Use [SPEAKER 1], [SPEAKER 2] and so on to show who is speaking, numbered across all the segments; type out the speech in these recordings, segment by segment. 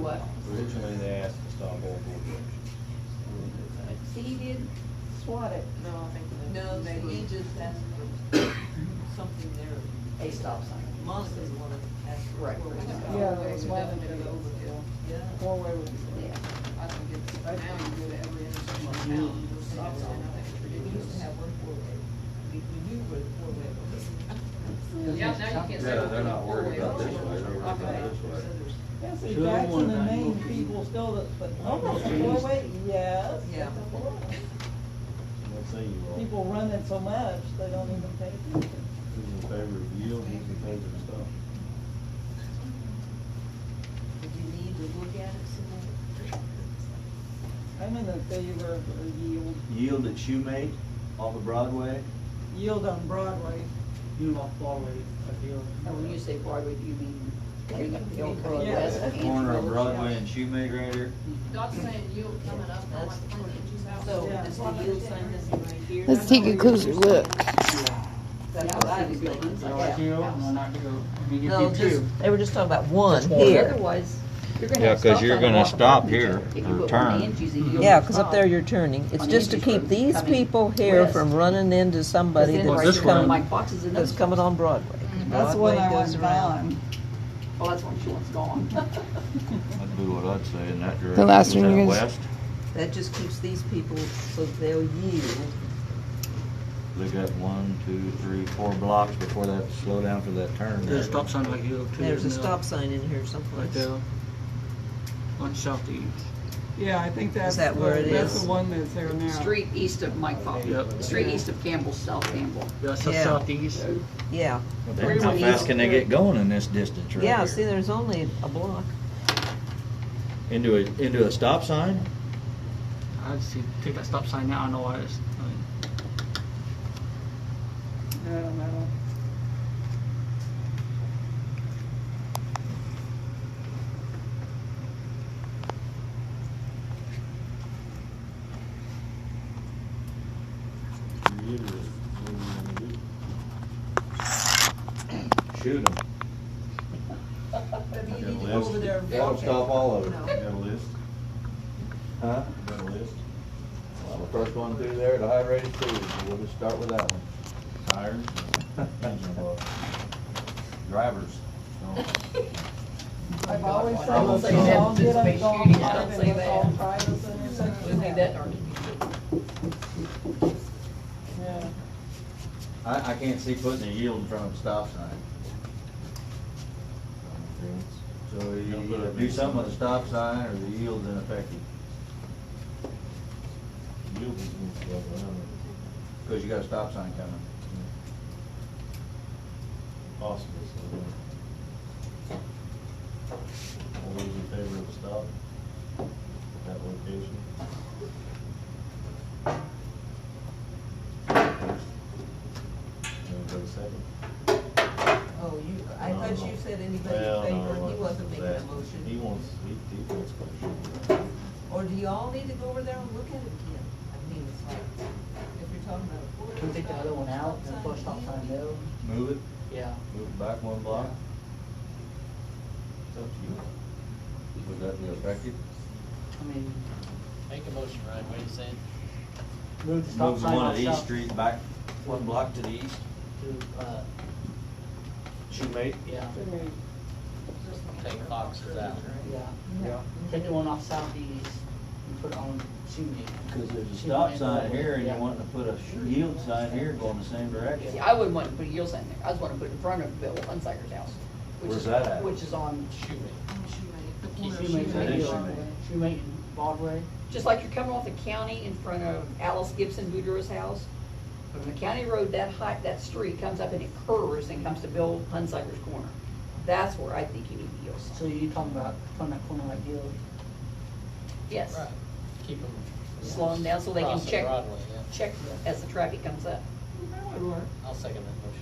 [SPEAKER 1] what?
[SPEAKER 2] Originally, they asked to stop all board meetings.
[SPEAKER 1] He did swat it,
[SPEAKER 3] No, I think.
[SPEAKER 4] No, they, he just asked for something there.
[SPEAKER 1] a stop sign.
[SPEAKER 4] Monica's the one that asked for.
[SPEAKER 1] Right.
[SPEAKER 4] four ways.
[SPEAKER 3] Yeah, it was one of them. Overkill.
[SPEAKER 4] Yeah.
[SPEAKER 3] Four-way was.
[SPEAKER 1] Yeah.
[SPEAKER 3] I think it's, now you go to every intersection in town, there's stop sign, I think it's
[SPEAKER 4] We used to
[SPEAKER 3] ridiculous.
[SPEAKER 4] have one four-way. We, we knew where the four-way was.
[SPEAKER 3] Yeah, now you can't say.
[SPEAKER 5] Yeah, they're not worried about this
[SPEAKER 3] four-way.
[SPEAKER 5] way, they're worried about this way.
[SPEAKER 6] Yes,
[SPEAKER 2] Sure, they
[SPEAKER 6] that's
[SPEAKER 2] want
[SPEAKER 6] in the
[SPEAKER 2] that.
[SPEAKER 6] name, people still, that- but, oh, that's a four-way, yes. that's a
[SPEAKER 4] Yeah.
[SPEAKER 6] four-way.
[SPEAKER 2] Let's say you all,
[SPEAKER 6] People run it so much, they don't even pay attention.
[SPEAKER 2] who's in favor of yield, who's in favor of stop?
[SPEAKER 4] Did you need to look at it some more?
[SPEAKER 6] I'm in the favor of a yield,
[SPEAKER 7] yield that you made off of Broadway.
[SPEAKER 6] yield on Broadway, yield off Broadway, a yield.
[SPEAKER 1] And when you say Broadway, do you mean heading up the old road
[SPEAKER 6] Yeah.
[SPEAKER 1] west
[SPEAKER 7] That
[SPEAKER 1] of
[SPEAKER 7] corner of
[SPEAKER 1] Angelo?
[SPEAKER 7] Broadway and Shoemake right here.
[SPEAKER 3] God's saying you coming up, I'm like, "Why don't you have-"
[SPEAKER 4] So
[SPEAKER 6] Yeah.
[SPEAKER 4] is the yield sign this one right here?
[SPEAKER 8] Let's take a closer look.
[SPEAKER 4] That's what I was thinking.
[SPEAKER 1] Buildings, like that house.
[SPEAKER 4] No, just, Oh, they were just talking about one
[SPEAKER 1] Otherwise, you're gonna
[SPEAKER 7] Yeah,
[SPEAKER 1] have
[SPEAKER 7] 'cause
[SPEAKER 1] stop
[SPEAKER 7] you're
[SPEAKER 1] sign
[SPEAKER 7] gonna
[SPEAKER 1] walking
[SPEAKER 7] stop
[SPEAKER 1] around each
[SPEAKER 7] here
[SPEAKER 1] other. If you
[SPEAKER 7] or
[SPEAKER 1] put one
[SPEAKER 7] turn.
[SPEAKER 1] Angie's and you don't
[SPEAKER 4] Yeah, because
[SPEAKER 1] stop,
[SPEAKER 4] up there you're turning. It's
[SPEAKER 1] On
[SPEAKER 4] just to
[SPEAKER 1] Angie
[SPEAKER 4] keep
[SPEAKER 1] from
[SPEAKER 4] these
[SPEAKER 1] coming
[SPEAKER 4] people here
[SPEAKER 1] west.
[SPEAKER 4] from running into
[SPEAKER 1] 'cause
[SPEAKER 4] somebody
[SPEAKER 1] then right
[SPEAKER 4] that's
[SPEAKER 1] there on
[SPEAKER 4] coming,
[SPEAKER 1] Mike Fox is another
[SPEAKER 4] that's coming on Broadway.
[SPEAKER 6] That's
[SPEAKER 4] Mm-hmm. Broadway
[SPEAKER 6] what I
[SPEAKER 4] goes
[SPEAKER 6] was
[SPEAKER 4] around.
[SPEAKER 6] buying.
[SPEAKER 1] Well, Oh, that's when she wants gone.
[SPEAKER 7] That'd be what I'd say in that direction.
[SPEAKER 8] last
[SPEAKER 7] Is
[SPEAKER 8] one
[SPEAKER 7] that
[SPEAKER 8] you guys-
[SPEAKER 7] West,
[SPEAKER 4] That just keeps these people, so they'll yield.
[SPEAKER 7] they got one, two, three, four blocks before that slow down for that turn.
[SPEAKER 9] There's a stop sign like you look to.
[SPEAKER 4] There's a
[SPEAKER 9] now,
[SPEAKER 4] stop sign in here someplace.
[SPEAKER 9] Right there. On Southeast.
[SPEAKER 6] Yeah, I think that's,
[SPEAKER 4] that where
[SPEAKER 6] the-
[SPEAKER 4] it
[SPEAKER 6] that's
[SPEAKER 4] is?
[SPEAKER 6] the one that's there now.
[SPEAKER 1] Street east of Mike Fox,
[SPEAKER 9] Yep.
[SPEAKER 1] street east of Campbell, South Campbell.
[SPEAKER 9] That's the
[SPEAKER 4] Yeah.
[SPEAKER 9] Southeast.
[SPEAKER 4] Yeah,
[SPEAKER 7] Well, then How fast can they get going in this distance right
[SPEAKER 4] yeah,
[SPEAKER 7] here?
[SPEAKER 4] see, there's only a block.
[SPEAKER 7] Into a, into a stop sign?
[SPEAKER 9] I see, take that stop sign now, I know why it's, I mean,
[SPEAKER 6] I don't know.
[SPEAKER 2] Yield is, what do you wanna do?
[SPEAKER 7] Shoot them.
[SPEAKER 4] Maybe
[SPEAKER 2] you need to go over there
[SPEAKER 7] Won't stop all of it.
[SPEAKER 2] You Got a list,
[SPEAKER 7] Huh?
[SPEAKER 2] You got a list,
[SPEAKER 7] Well, the first one through there, the high rated speed, we'll just start with that one.
[SPEAKER 2] tires, engine block, drivers. No.
[SPEAKER 6] I've always said,
[SPEAKER 2] I will
[SPEAKER 6] let's
[SPEAKER 2] say that
[SPEAKER 6] all get on
[SPEAKER 1] despite
[SPEAKER 6] golf
[SPEAKER 1] shooting, I
[SPEAKER 6] cart
[SPEAKER 1] don't
[SPEAKER 6] and
[SPEAKER 1] say
[SPEAKER 6] let's all
[SPEAKER 1] that.
[SPEAKER 6] try this intersection.
[SPEAKER 1] We'll leave that dark.
[SPEAKER 6] Yeah.
[SPEAKER 7] I, I can't see putting a yield in front of a stop sign. So you
[SPEAKER 2] Don't put
[SPEAKER 7] either
[SPEAKER 2] it-
[SPEAKER 7] do something with a stop sign or the yield's ineffective,
[SPEAKER 2] Yield is moved to the other end.
[SPEAKER 7] because you got a stop sign coming.
[SPEAKER 2] Possible, so. uh, All those in favor of stop at that location? Anybody second?
[SPEAKER 4] Oh, you, I
[SPEAKER 2] No,
[SPEAKER 4] thought
[SPEAKER 2] no.
[SPEAKER 4] you said anybody
[SPEAKER 2] Well,
[SPEAKER 4] in
[SPEAKER 2] no,
[SPEAKER 4] favor, he
[SPEAKER 2] I
[SPEAKER 4] wasn't making a
[SPEAKER 2] asking. He
[SPEAKER 4] motion.
[SPEAKER 2] wants, he, he wants question.
[SPEAKER 4] Or do you all need to go over there and look at it again? I mean, it's like, if you're talking about a
[SPEAKER 1] We
[SPEAKER 4] four.
[SPEAKER 1] take the other one out and push stop sign there.
[SPEAKER 7] Move it,
[SPEAKER 1] Yeah.
[SPEAKER 7] move it back one block,
[SPEAKER 2] It's up to you.
[SPEAKER 7] would that be effective?
[SPEAKER 1] I mean,
[SPEAKER 10] Make a motion, Ryan, what do you say?
[SPEAKER 7] Move the stop sign. one at East Street back one block to the east.
[SPEAKER 10] To, uh,
[SPEAKER 7] Shoemake?
[SPEAKER 10] yeah, take Fox's out.
[SPEAKER 1] yeah.
[SPEAKER 7] Yeah.
[SPEAKER 1] Take the one off southeast and put it on Sunday.
[SPEAKER 7] Because there's a stop sign here and you want to put a yield sign here going the same
[SPEAKER 1] See,
[SPEAKER 7] direction.
[SPEAKER 1] I wouldn't want to put a yield sign there. I'd want to put it in front of Bill Hunsiker's house. which
[SPEAKER 7] Where's
[SPEAKER 1] is-
[SPEAKER 7] that at?
[SPEAKER 1] Which is on
[SPEAKER 10] Shoemake.
[SPEAKER 1] Shoemaker
[SPEAKER 7] That is
[SPEAKER 1] Hill.
[SPEAKER 7] Shoemaker.
[SPEAKER 1] Shoemaker and Broadway. Just like you're coming off the county in front of Alice Gibson Boudreaux's house. From the county road, that height, that street comes up and it curves and comes to Bill Hunsiker's corner. That's where I think you need the yield sign.
[SPEAKER 8] So you're talking about from that corner like Hill?
[SPEAKER 1] Yes,
[SPEAKER 10] Keep them.
[SPEAKER 1] Slow 'em down so they can
[SPEAKER 10] Crossing
[SPEAKER 1] check.
[SPEAKER 10] Broadway, yeah.
[SPEAKER 1] check as the traffic comes up.
[SPEAKER 10] I'll second that motion.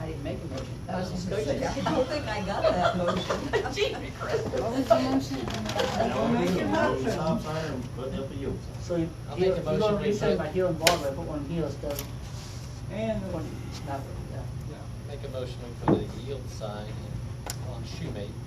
[SPEAKER 1] I didn't make a motion. That was
[SPEAKER 4] I
[SPEAKER 1] discussion.
[SPEAKER 4] don't think I got that motion.
[SPEAKER 1] Gee, Chris.
[SPEAKER 6] Make your motion.
[SPEAKER 2] Stop sign and put up a yield sign.
[SPEAKER 8] So you-
[SPEAKER 10] I'll make
[SPEAKER 8] you're
[SPEAKER 10] a
[SPEAKER 8] you're
[SPEAKER 10] motion,
[SPEAKER 8] gonna
[SPEAKER 10] we
[SPEAKER 8] be saying
[SPEAKER 10] put-
[SPEAKER 8] about Hill and Broadway, put one Hill instead of
[SPEAKER 6] And
[SPEAKER 8] one, that way, yeah.
[SPEAKER 10] Make a motion for the yield sign on Shoemake